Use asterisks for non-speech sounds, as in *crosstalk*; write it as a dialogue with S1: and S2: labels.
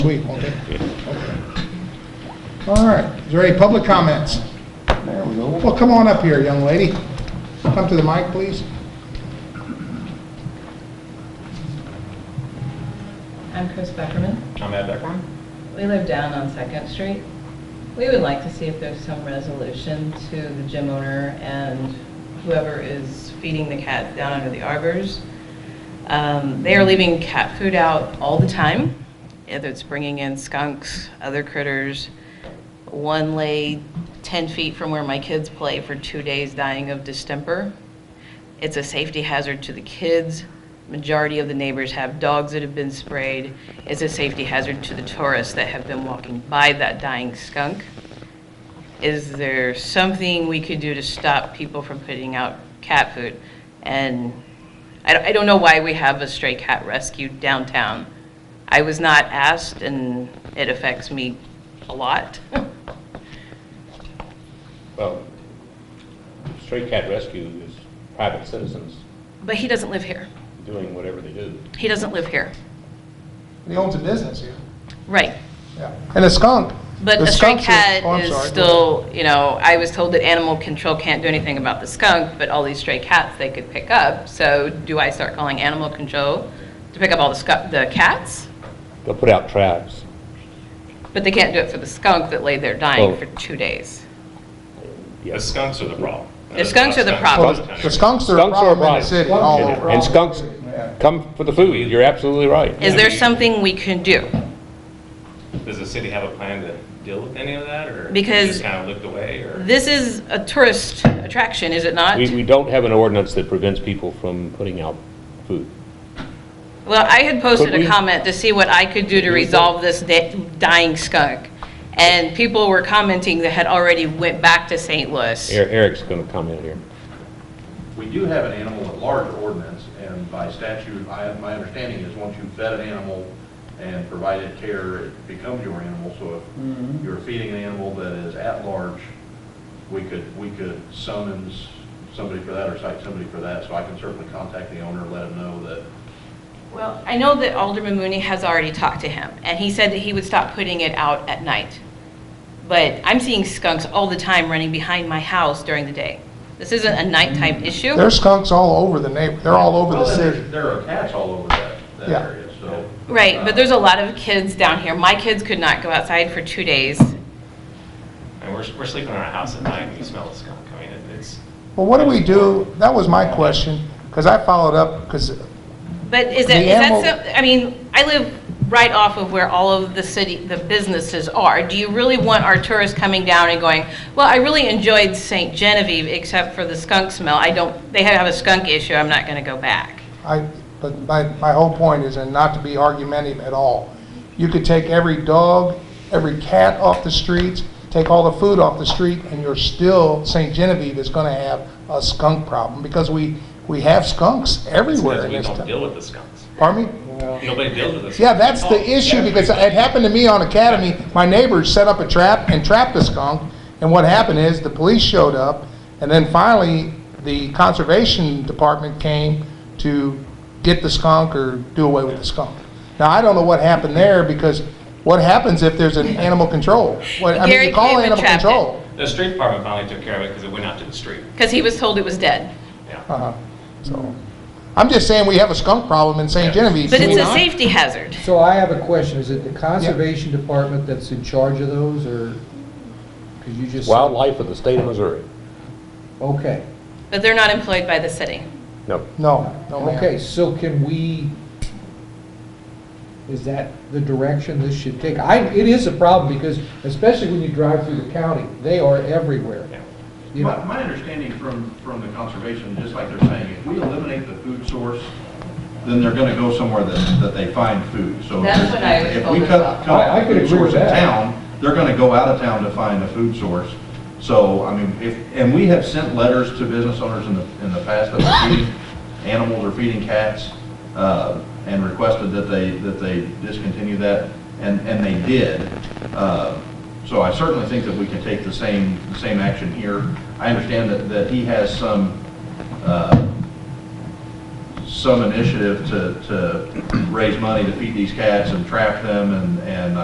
S1: Week, okay. Okay. All right, is there any public comments? There we go. Well, come on up here, young lady. Come to the mic, please.
S2: I'm Chris Beckerman.
S3: I'm Ed Beckman.
S2: We live down on Second Street. We would like to see if there's some resolution to the gym owner and whoever is feeding the cats down under the arbors. Um, They are leaving cat food out all the time, whether it's bringing in skunks, other critters. One lay 10 feet from where my kids play for two days dying of distemper. It's a safety hazard to the kids. Majority of the neighbors have dogs that have been sprayed. It's a safety hazard to the tourists that have been walking by that dying skunk. Is there something we could do to stop people from putting out cat food? And I don't, I don't know why we have a stray cat rescue downtown. I was not asked, and it affects me a lot. *laughs*
S3: Well, Stray Cat Rescue is private citizens
S2: But he doesn't live here.
S3: doing whatever they do.
S2: He doesn't live here.
S1: He owns a business here.
S2: Right.
S1: Yeah. And a skunk.
S2: But
S1: The
S2: a stray
S1: skunks are-
S2: cat
S1: oh, I'm
S2: is
S1: sorry, go
S2: still, you know, I was told that animal control can't do anything about the skunk, but all these stray cats they could pick up. So do I start calling animal control to pick up all the skunk, the cats?
S3: They'll put out traps.
S2: But they can't do it for the skunk that lay there dying
S3: Oh.
S2: for two days.
S4: The skunks are the problem.
S2: The skunks are the
S1: Well,
S2: problem.
S1: The skunks are a
S3: Skunks are a
S1: problem in the
S3: problem.
S1: city all
S3: And-
S1: over.
S3: And skunks come for the food, you're absolutely right.
S2: Is there something we can do?
S4: Does the city have a plan to deal with any of that, or?
S2: Because-
S4: Just kind of looked away, or?
S2: This is a tourist attraction, is it not?
S3: We, we don't have an ordinance that prevents people from putting out food.
S2: Well, I had posted
S3: Could
S2: a
S3: we-
S2: comment to see what I could do to resolve this da- dying skunk. And people were commenting that had already went back to St. Louis.
S3: Er- Eric's going to comment here.
S5: We do have an animal at large ordinance, and by statute, I, my understanding is, once you vet an animal and provide it care, it becomes your animal, so
S1: Mm-hmm.
S5: if you're feeding an animal that is at large, we could, we could summons somebody for that or cite somebody for that, so I can certainly contact the owner, let him know that
S2: Well, I know that Alderman Mooney has already talked to him, and he said that he would stop putting it out at night. But I'm seeing skunks all the time running behind my house during the day. This isn't a nighttime issue.
S1: There's skunks all over the neighbor, they're all over the
S5: Well, and
S1: city.
S5: there's- There are cats all over that, that
S1: Yeah.
S5: area, so.
S2: Right, but
S5: uh,
S2: there's a lot of kids down here. My kids could not go outside for two days.
S4: And we're, we're sleeping in our house at night, and you smell a skunk, I mean, it- it's.
S1: Well, what do we do? That was my question, because I followed up, because
S2: But is
S1: The
S2: it, is that,
S1: animal-
S2: some- I mean, I live right off of where all of the city, the businesses are. Do you really want our tourists coming down and going, well, I really enjoyed St. Genevieve except for the skunk smell. I don't, they have a skunk issue, I'm not going to go back.
S1: I, but my, my whole point is, and not to be argumentative at all, you could take every dog, every cat off the streets, take all the food off the street, and you're still, St. Genevieve is gonna have a skunk problem, because we, we have skunks
S4: it's
S1: everywhere
S4: because
S1: in
S4: We
S1: this
S4: don't
S1: town.
S4: deal with the skunks.
S1: Pardon me?
S4: Nobody deals with the skunks.
S1: Yeah, that's
S4: Oh,
S1: the issue, because it happened to me on Academy. My neighbors set up a trap and trapped a skunk, and what happened is, the police showed up, and then finally, the conservation department came to get the skunk or do away with the skunk. Now, I don't know what happened there, because what happens if there's an animal control? What, I mean,
S2: Gary
S1: you call
S2: came and
S1: animal
S2: trapped it.
S1: control.
S4: The street department finally took care of it, because it went out to the street,
S2: Because he was told it was dead.
S4: yeah.
S1: Uh-huh. So, I'm just saying, we have a skunk problem in St. Genevieve.
S2: But
S1: do
S2: it's
S1: we
S2: a
S1: not?
S2: safety hazard.
S6: So I have a question, is it the Conservation Department that's in charge of those, or, because you just... said-
S3: Wildlife of the state of Missouri.
S6: Okay,
S2: But they're not employed by the city.
S3: No,
S1: No, no, ma'am.
S6: okay, so can we, is that the direction this should take? I, it is a problem, because especially when you drive through the county, they are everywhere,
S4: Yeah.
S6: you
S5: My,
S6: know?
S5: my understanding from, from the conservation, just like they're saying, if we eliminate the food source, then they're gonna go somewhere that, that they find food, so. if-
S2: That's what I was told
S5: If we
S2: as well.
S5: cut, cut
S6: I- I
S5: off
S6: could
S5: food
S6: agree with
S5: source in
S6: that.
S5: town, they're gonna go out of town to find a food source. So, I mean, if, and we have sent letters to business owners in the, in the past that are feeding animals or feeding cats, uh, and requested that they, that they discontinue that, and, and they did. Uh, so I certainly think that we can take the same, the same action here. I understand that, that he has some, uh, some initiative to, to raise money to feed these cats and uh, trap them and, and